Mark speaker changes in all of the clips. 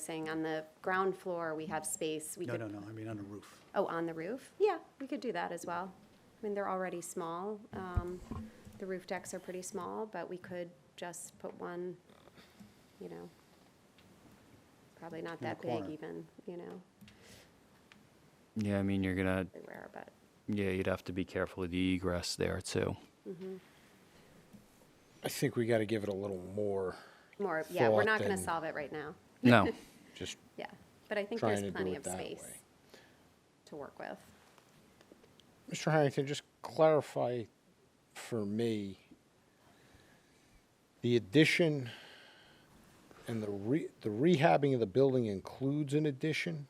Speaker 1: saying on the ground floor, we have space, we
Speaker 2: No,
Speaker 1: could.
Speaker 2: no, no, I mean on the roof.
Speaker 1: Oh, on the roof? Yeah, we could do that as well. I mean, they're already small. Um, the roof decks are pretty small, but we could just put one, you know, probably not
Speaker 2: the
Speaker 1: that big
Speaker 2: corner.
Speaker 1: even, you know,
Speaker 3: Yeah, I mean, you're gonna,
Speaker 1: they rare, but.
Speaker 3: yeah, you'd have to be careful with the egress there too.
Speaker 4: I think we got to give it a little more,
Speaker 1: More, yeah, we're not gonna
Speaker 4: Thought and-
Speaker 1: solve it right now.
Speaker 3: No,
Speaker 4: just
Speaker 1: Yeah, but I think
Speaker 4: trying
Speaker 1: there's
Speaker 4: to do
Speaker 1: plenty
Speaker 4: it
Speaker 1: of
Speaker 4: that
Speaker 1: space
Speaker 4: way.
Speaker 1: to work with.
Speaker 4: Mr. Harrington, just clarify for me, the addition and the re, the rehabbing of the building includes an addition?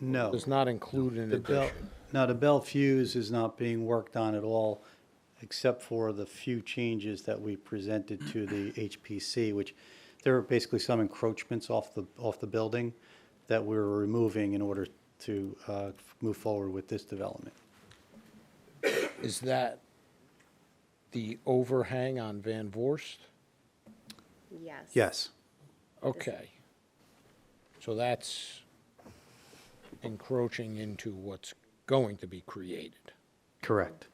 Speaker 2: No.
Speaker 4: Does not include an
Speaker 2: The Bel-
Speaker 4: addition?
Speaker 2: No, the Bell Fuse is not being worked on at all, except for the few changes that we presented to the HPC, which there were basically some encroachments off the, off the building that we were removing in order to uh, move forward with this development.
Speaker 4: Is that the overhang on Van Vorst?
Speaker 1: Yes.
Speaker 2: Yes,
Speaker 4: Okay. So that's encroaching into what's going to be created.
Speaker 2: correct.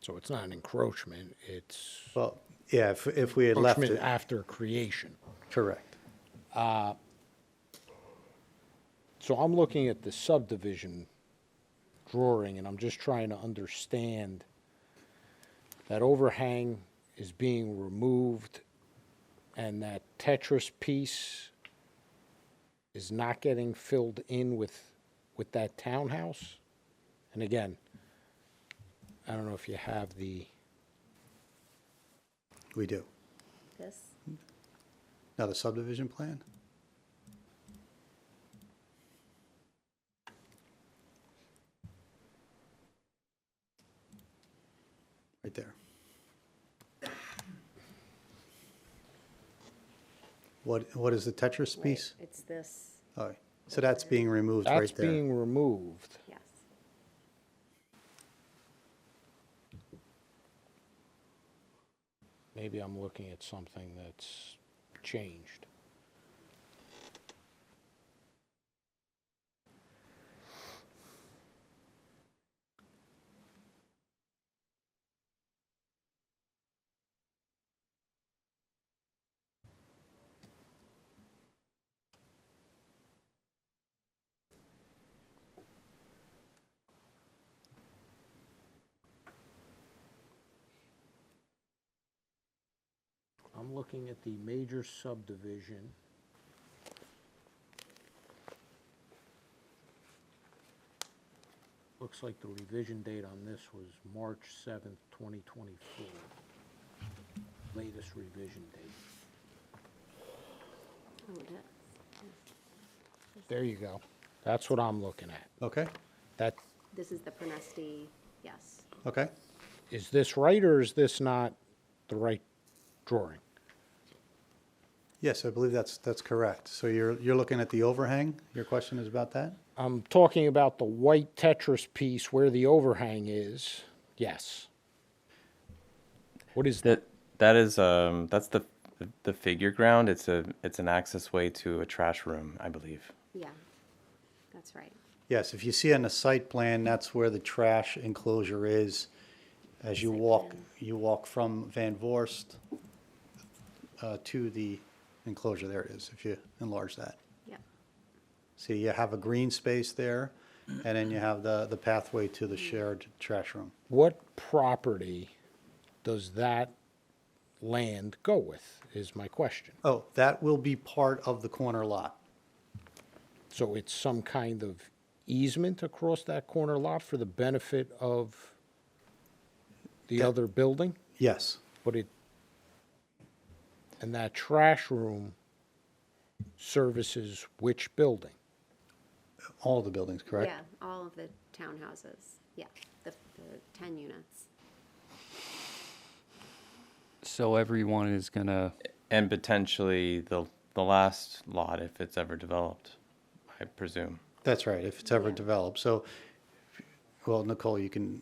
Speaker 4: So it's not an encroachment, it's
Speaker 2: Well, yeah, if, if we had left
Speaker 4: encroachment
Speaker 2: it,
Speaker 4: after creation.
Speaker 2: correct.
Speaker 4: So I'm looking at the subdivision drawing, and I'm just trying to understand that overhang is being removed, and that Tetris piece is not getting filled in with, with that townhouse? And again, I don't know if you have the,
Speaker 2: We do.
Speaker 1: This,
Speaker 2: Now, the subdivision plan? Right there. What, what is the Tetris
Speaker 1: wait,
Speaker 2: piece?
Speaker 1: it's this,
Speaker 2: All right, so that's being removed right
Speaker 4: that's
Speaker 2: there.
Speaker 4: being removed.
Speaker 1: yes.
Speaker 4: Maybe I'm looking at something that's changed. I'm looking at the major subdivision. Looks like the revision date on this was March seventh, twenty twenty-four. Latest revision date.
Speaker 1: Oh, that-
Speaker 4: There you go. That's what I'm looking at.
Speaker 2: Okay,
Speaker 4: That,
Speaker 1: This is the Pronesti, yes.
Speaker 2: okay.
Speaker 4: is this right or is this not the right drawing?
Speaker 2: Yes, I believe that's, that's correct. So you're, you're looking at the overhang? Your question is about that?
Speaker 4: I'm talking about the white Tetris piece where the overhang is. Yes. What is that?
Speaker 5: That that is um that's the the figure ground. It's a it's an access way to a trash room, I believe.
Speaker 1: Yeah, that's right.
Speaker 2: Yes, if you see on the site plan, that's where the trash enclosure is. As you
Speaker 1: Site
Speaker 2: walk,
Speaker 1: plan.
Speaker 2: you walk from Van Vorst uh, to the enclosure, there it is, if you enlarge that.
Speaker 1: Yeah,
Speaker 2: See, you have a green space there, and then you have the, the pathway to the shared trash room.
Speaker 4: What property does that land go with? Is my question.
Speaker 2: Oh, that will be part of the corner lot.
Speaker 4: So it's some kind of easement across that corner lot for the benefit of the other building?
Speaker 2: Yes,
Speaker 4: But it, and that trash room services which building?
Speaker 2: all the buildings, correct?
Speaker 1: yeah, all of the townhouses, yeah, the, the ten units.
Speaker 3: so everyone is gonna,
Speaker 5: And potentially the the last lot if it's ever developed, I presume.
Speaker 2: That's right, if it's ever
Speaker 1: Yeah.
Speaker 2: developed. So, well, Nicole, you can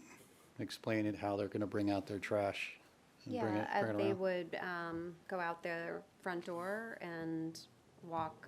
Speaker 2: explain it, how they're going to bring out their trash. and bring
Speaker 1: Yeah,
Speaker 2: it- bring
Speaker 1: uh,
Speaker 2: it
Speaker 1: they
Speaker 2: around.
Speaker 1: would, um, go out their front door and walk